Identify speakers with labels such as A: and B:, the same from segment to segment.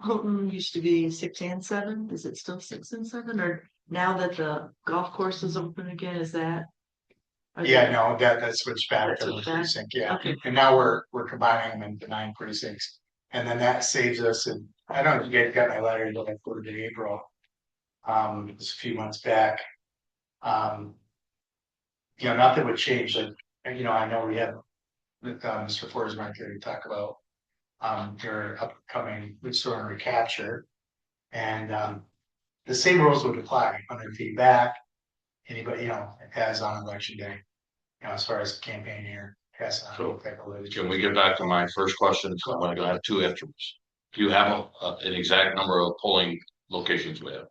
A: Houghton used to be six and seven, is it still six and seven, or now that the golf course is open again, is that? are
B: Yeah,
A: they-
B: no, that, that switched back
A: Oh, That
B: to the
A: switched back?
B: precinct, yeah,
A: Okay.
B: and now we're, we're combining them into nine precincts. And then that saves us, and I don't know if you guys got my letter, until like quarter to April. Um, it was a few months back. Um. You know, nothing would change, like, and, you know, I know we have. With, um, Mr. Forsmark here to talk about. Um, your upcoming restore and recapture. And, um, the same rules would apply, hundred feet back. Anybody, you know, as on election day you know, as far as campaign year, yes. I
C: So,
B: think I believe-
C: Can we get back to my first question? So I'm gonna go have two answers. Do you have a- a- an exact number of polling locations we have?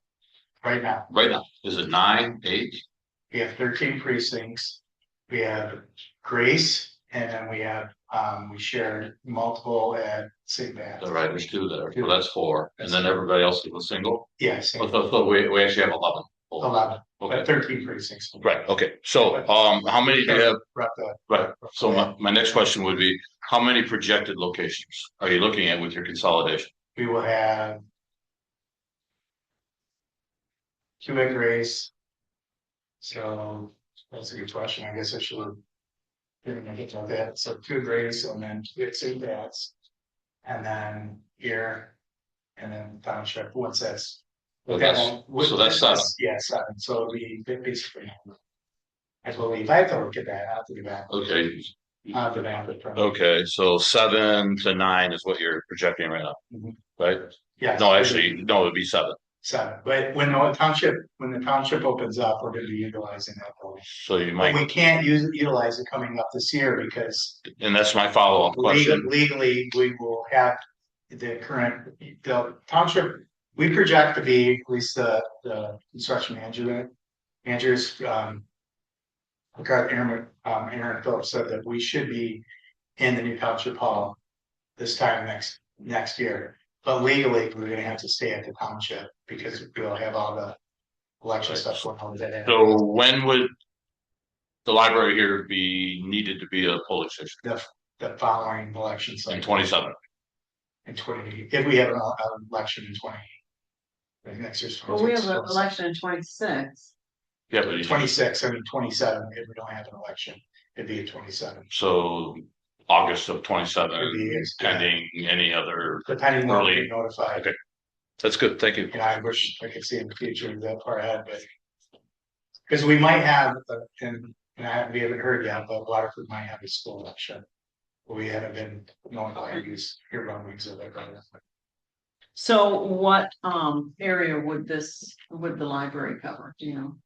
B: Right now,
C: Right now, is it nine, eight?
B: we have thirteen precincts. We have Grace and then we have, um, we share multiple at St. Bath.
C: All right, there's two there. So that's four. And then everybody else is a single?
B: Yes,
C: Oh, So, so we, we actually have eleven. polling.
B: eleven, but
C: Okay,
B: thirteen precincts.
C: right, okay. So, um, how many do you have?
B: Right, the-
C: Right, so my, my next question would be, how many projected locations are you looking at with your consolidation?
B: We will have. Two at Grace. So that's a good question. I guess I should. have Didn't make it like that. So two at Grace and then two at St. Pat's. And then here. And then township, what's this?
C: So that's-
B: With-
C: so that's seven.
B: Yeah, seven. So it'll be basically. I believe I have to look at that. I have to do that.
C: Okay,
B: I have to map it. from-
C: okay, so seven to nine is what you're projecting right now,
B: Mhm.
C: right?
B: Yeah.
C: No, actually, no, it'd be seven.
B: So, but when the township, when the township opens up, we're gonna be utilizing that building.
C: So you
B: But
C: might,
B: we can't use, utilize it coming up this year because
C: and that's my follow-up
B: legally,
C: question.
B: legally, we will have the current, the township, we project to be, at least the, the construction manager, managers, um, Aaron, Aaron, um, Aaron Phillips said that we should be in the new township hall this time next, next year. But legally, we're gonna have to stay at the township because we'll have all the election stuff going on with that.
C: So when would the library here be needed to be a polling station
B: The following election
C: in
B: cycle.
C: twenty-seven?
B: in twenty, if we have an el- an election in twenty. like next year's.
A: Well, we have an election in twenty-six,
C: Yeah, but you-
B: Twenty-six, I mean, twenty-seven, if we don't have an election, it'd be a twenty-seven.
C: so August of
B: It'd
C: twenty-seven,
B: be, it's-
C: pending any other,
B: Depending on
C: early.
B: being notified,
C: Okay. that's good, thank you.
B: and I wish I could see in the future that far ahead, but. Cause we might have, uh, and, and I, we haven't heard yet, but Waterford might have a school election. We haven't been notified, use here on weeks of it, right?
A: so what um area would this, would the library cover, do you know?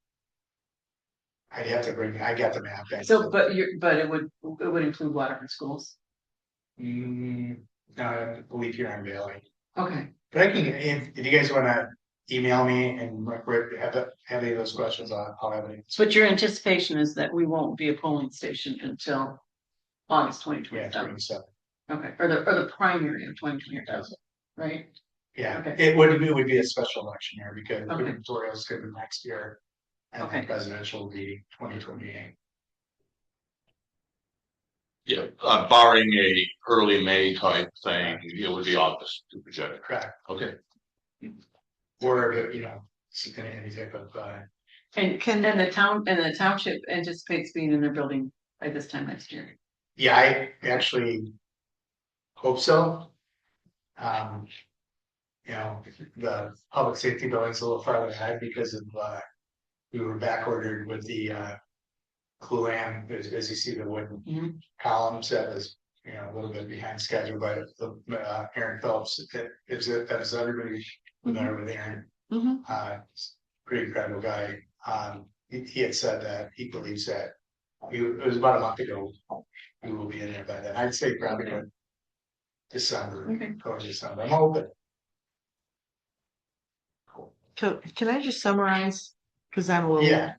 B: I'd have to bring, I got the map. I-
A: So, but you, but it would, it would include Waterford schools,
B: Mm, no, I believe here on Valley.
A: okay,
B: But I can, if, if you guys wanna email me and re- re- have, the- have any of those questions, I'll, I'll have it.
A: so what your anticipation is that we won't be a polling station until August twenty
B: Yeah,
A: twenty-seven,
B: twenty-seven,
A: okay, or the, or the primary of twenty twenty-seven, right?
B: yeah,
A: Okay.
B: it would, it would be a special election year because the
A: Okay.
B: gubernatorial's gonna be next year. And the
A: Okay.
B: presidential will be twenty twenty-eight.
C: Yeah, uh, barring a early May type thing, it would be August to project. it.
B: Correct,
C: Okay,
B: or, if it, you know, s- any any type of, uh,
A: And can, and the town, and the township anticipates being in their building by this time next year.
B: yeah, I actually. Hope so. Um. You know, the public safety building's a little farther ahead because of, uh. We were back ordered with the, uh. Coolam, as, as you see the wooden
A: Mhm.
B: columns that was, you know, a little bit behind schedule, but the, uh, Aaron Phelps, it, it was, that was everybody. Familiar with Aaron,
D: Mm-hmm.
A: Mhm.
B: uh, pretty incredible guy. Um, he, he had said that he believes that. He, it was about a month ago. We will be in there by then. I'd say probably
A: Okay.
B: by December,
A: Okay.
B: or December. I'm hoping.
D: Can, can I just summarize? Cause I'm a little,
B: Yeah,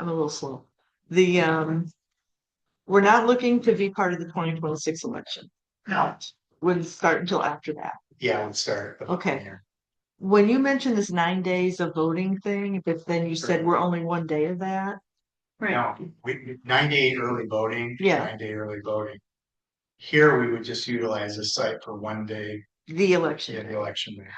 D: I'm a little slow. The, um, we're not looking to be part of the twenty twenty-six election.
B: No.
D: Wouldn't start until after that.
B: yeah, we'll start. the
D: Okay.
B: year.
D: When you mentioned this nine days of voting thing, but then you said we're only one day of that.
A: Right,
B: No, we, nine day early voting.
D: Yeah.
B: Nine day early voting. Here, we would just utilize the site for one day
D: The election.
B: in
D: day.
B: the election day.